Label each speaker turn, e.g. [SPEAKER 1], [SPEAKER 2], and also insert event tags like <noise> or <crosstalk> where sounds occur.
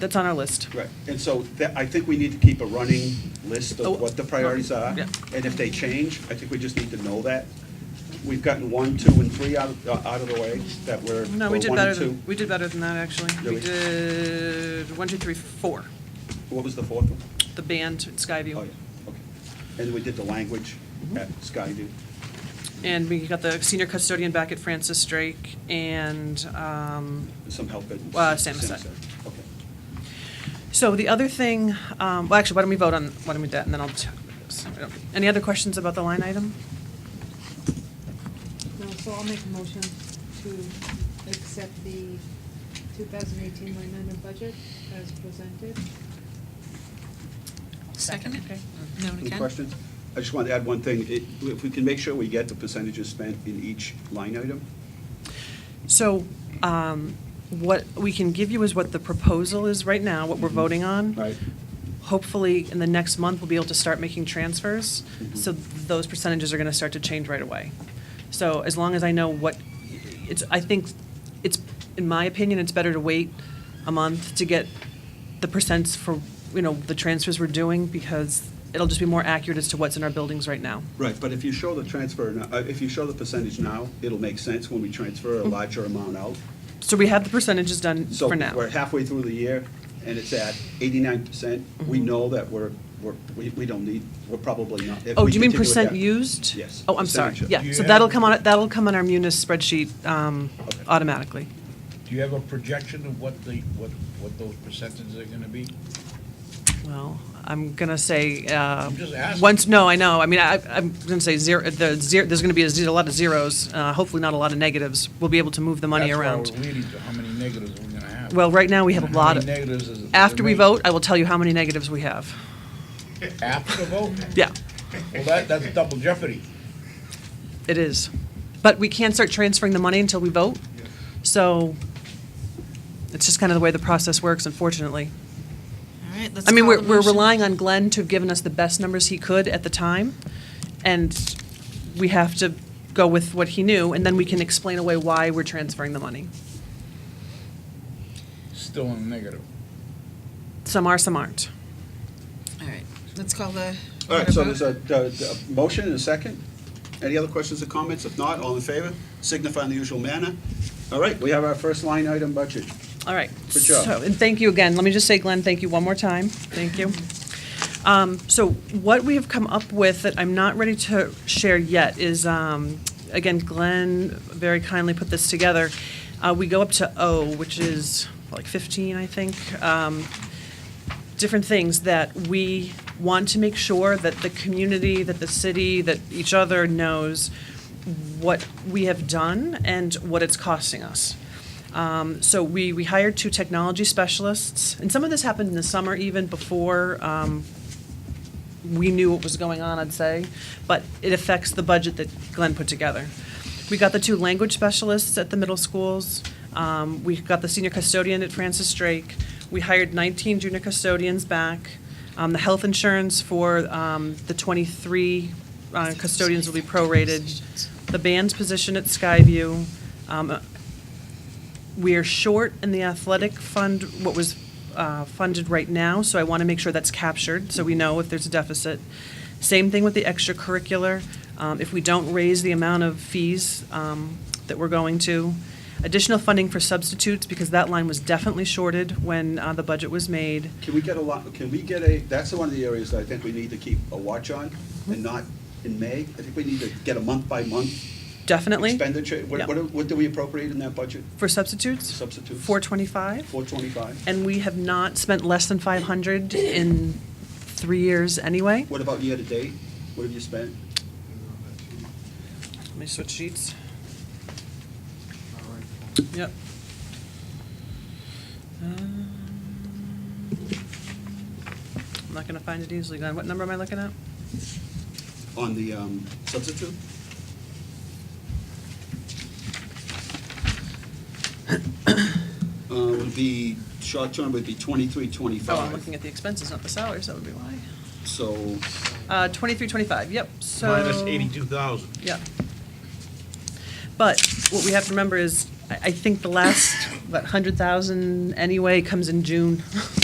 [SPEAKER 1] That's on our list.
[SPEAKER 2] Right, and so that, I think we need to keep a running list
[SPEAKER 1] Oh,
[SPEAKER 2] of what the priorities are.
[SPEAKER 1] yeah.
[SPEAKER 2] And if they change, I think we just need to know that. We've gotten one, two, and three out, of- uh, out of the way that were,
[SPEAKER 1] No, we
[SPEAKER 2] were
[SPEAKER 1] did
[SPEAKER 2] one
[SPEAKER 1] better
[SPEAKER 2] and
[SPEAKER 1] than,
[SPEAKER 2] two.
[SPEAKER 1] we did better than that, actually.
[SPEAKER 2] Did
[SPEAKER 1] We
[SPEAKER 2] we?
[SPEAKER 1] did one, two, three, four.
[SPEAKER 2] What was the fourth one?
[SPEAKER 1] The Mm-hmm. band at
[SPEAKER 2] Oh,
[SPEAKER 1] Skyview.
[SPEAKER 2] yeah, okay. And we did the language at Skyview.
[SPEAKER 1] And we got the senior custodian back at Francis Drake and, um,
[SPEAKER 2] some help at.
[SPEAKER 1] Uh, Samoset.
[SPEAKER 2] Okay.
[SPEAKER 1] so the other thing, um, well, actually, why don't we vote on, why don't we do that, and then I'll talk about this. I don't- Any other questions about the line item?
[SPEAKER 3] No, so I'll make a motion to accept the 2018 line item budget as presented.
[SPEAKER 4] Second. Mm-hmm.
[SPEAKER 1] Okay.
[SPEAKER 4] No,
[SPEAKER 2] Any
[SPEAKER 4] again?
[SPEAKER 2] questions? I just want to add one thing. It- If we can make sure we get the percentages spent in each line item.
[SPEAKER 1] So, um, what we can give you is what the proposal is right now, what we're
[SPEAKER 2] Mhm.
[SPEAKER 1] voting on.
[SPEAKER 2] Right.
[SPEAKER 1] Hopefully, in the next month, we'll be able to start making transfers,
[SPEAKER 2] Mhm.
[SPEAKER 1] so those percentages are gonna start to change right away. So as long as I know what, it's, I think, it's, in my opinion, it's better to wait a month to get the percents for, you know, the transfers we're doing, because it'll just be more accurate as to what's in our buildings right now.
[SPEAKER 2] Right, but if you show the transfer, now- uh, if you show the percentage now, it'll make sense when we transfer a larger amount out.
[SPEAKER 1] So we have the percentages done
[SPEAKER 2] So
[SPEAKER 1] Mm-hmm. for now.
[SPEAKER 2] we're halfway through the year, and it's at eighty-nine percent. We
[SPEAKER 1] Mm-hmm.
[SPEAKER 2] know that we're, we're, we we don't need, we're probably not. if
[SPEAKER 1] Oh,
[SPEAKER 2] we
[SPEAKER 1] do you mean
[SPEAKER 2] continue at
[SPEAKER 1] percent
[SPEAKER 2] that-
[SPEAKER 1] used?
[SPEAKER 2] Yes.
[SPEAKER 1] Oh, I'm sorry,
[SPEAKER 2] percentage.
[SPEAKER 1] yeah,
[SPEAKER 5] Do
[SPEAKER 1] so
[SPEAKER 5] you
[SPEAKER 1] that'll
[SPEAKER 5] have-
[SPEAKER 1] come on, that'll come on our munis spreadsheet um,
[SPEAKER 2] Okay.
[SPEAKER 1] automatically.
[SPEAKER 5] Do you have a projection of what the, what, what those percentages are gonna be?
[SPEAKER 1] Well, I'm gonna say, uh,
[SPEAKER 5] I'm just asking.
[SPEAKER 1] once, no, I know, I mean, I, I'm gonna say zero, the zero, there's gonna be a ze- a lot of zeros, uh, hopefully not a lot of negatives. We'll be able to move the money
[SPEAKER 5] That's
[SPEAKER 1] around.
[SPEAKER 5] why we're leading to how many negatives we're gonna have.
[SPEAKER 1] Well, right now, we have a
[SPEAKER 5] And
[SPEAKER 1] lot of,
[SPEAKER 5] How many negatives is it?
[SPEAKER 1] after we vote, I will tell you how many negatives we have.
[SPEAKER 5] After the vote?
[SPEAKER 1] Yeah,
[SPEAKER 5] Well, that, that's double jeopardy.
[SPEAKER 1] it is. But we can't start transferring the money until we vote, so it's just kind of the way the process works, unfortunately.
[SPEAKER 4] All right, let's
[SPEAKER 1] I mean,
[SPEAKER 4] call
[SPEAKER 1] we're,
[SPEAKER 4] the
[SPEAKER 1] we're
[SPEAKER 4] motion.
[SPEAKER 1] relying on Glenn to have given us the best numbers he could at the time, and we have to go with what he knew, and then we can explain away why we're transferring the money.
[SPEAKER 5] Still in the negative.
[SPEAKER 1] Some are, some aren't.
[SPEAKER 4] All right, let's call the.
[SPEAKER 2] All right, so there's a, a- a motion and a second. Any other questions or comments? If not, all in favor, signify in the usual manner. All right, we have our first line item budget.
[SPEAKER 1] All right.
[SPEAKER 2] Good job.
[SPEAKER 1] So, And thank you again. Let me just say, Glenn, thank you one more time. Thank you. Um, So what we have come up with that I'm not ready to share yet is, um, again, Glenn very kindly put this together. Uh, We go up to O, which is like 15, I think. Um, different things that we want to make sure that the community, that the city, that each other knows what we have done and what it's costing us. Um, so we, we hired two technology specialists, and some of this happened in the summer even before um, we knew what was going on, I'd say, but it affects the budget that Glenn put together. We got the two language specialists at the middle schools. Um, we got the senior custodian at Francis Drake. We hired 19 junior custodians back. Um, the health insurance for um, the 23 uh, custodians will be prorated. The band's position at Skyview. Um, we are short in the athletic fund, what was uh, funded right now, so I want to make sure that's captured, so we know if there's a deficit. Same thing with the extracurricular. Um, If we don't raise the amount of fees um, that we're going to. Additional funding for substitutes, because that line was definitely shorted when uh, the budget was made.
[SPEAKER 2] Can we get a lot, can we get a, that's one of the areas that I think we need to keep a watch on, and not in May. I think we need to get a month-by-month
[SPEAKER 1] Definitely.
[SPEAKER 2] expenditure.
[SPEAKER 1] Yeah.
[SPEAKER 2] What, what do- what do we appropriate in that budget?
[SPEAKER 1] For substitutes?
[SPEAKER 2] Substitutes.
[SPEAKER 1] 425.
[SPEAKER 2] Four twenty-five?
[SPEAKER 1] And we have not spent less than 500 in three years anyway.
[SPEAKER 2] What about year-to-date? What have you spent?
[SPEAKER 1] Let me switch sheets. Yep. Uh, Um, I'm not gonna find it easily, Glenn. What number am I looking at?
[SPEAKER 2] On the um,
[SPEAKER 1] <coughs>
[SPEAKER 2] substitute? Uh, Would be, short-term would be twenty-three, twenty-five.
[SPEAKER 1] Oh, I'm looking at the expenses, not the salaries, that would be why.
[SPEAKER 2] So,
[SPEAKER 1] Uh, twenty-three, twenty-five, yep, so.
[SPEAKER 6] Minus eighty-two thousand.
[SPEAKER 1] Yep. But what we have to remember is, I, I think the last that hundred thousand anyway comes in June. <laughs>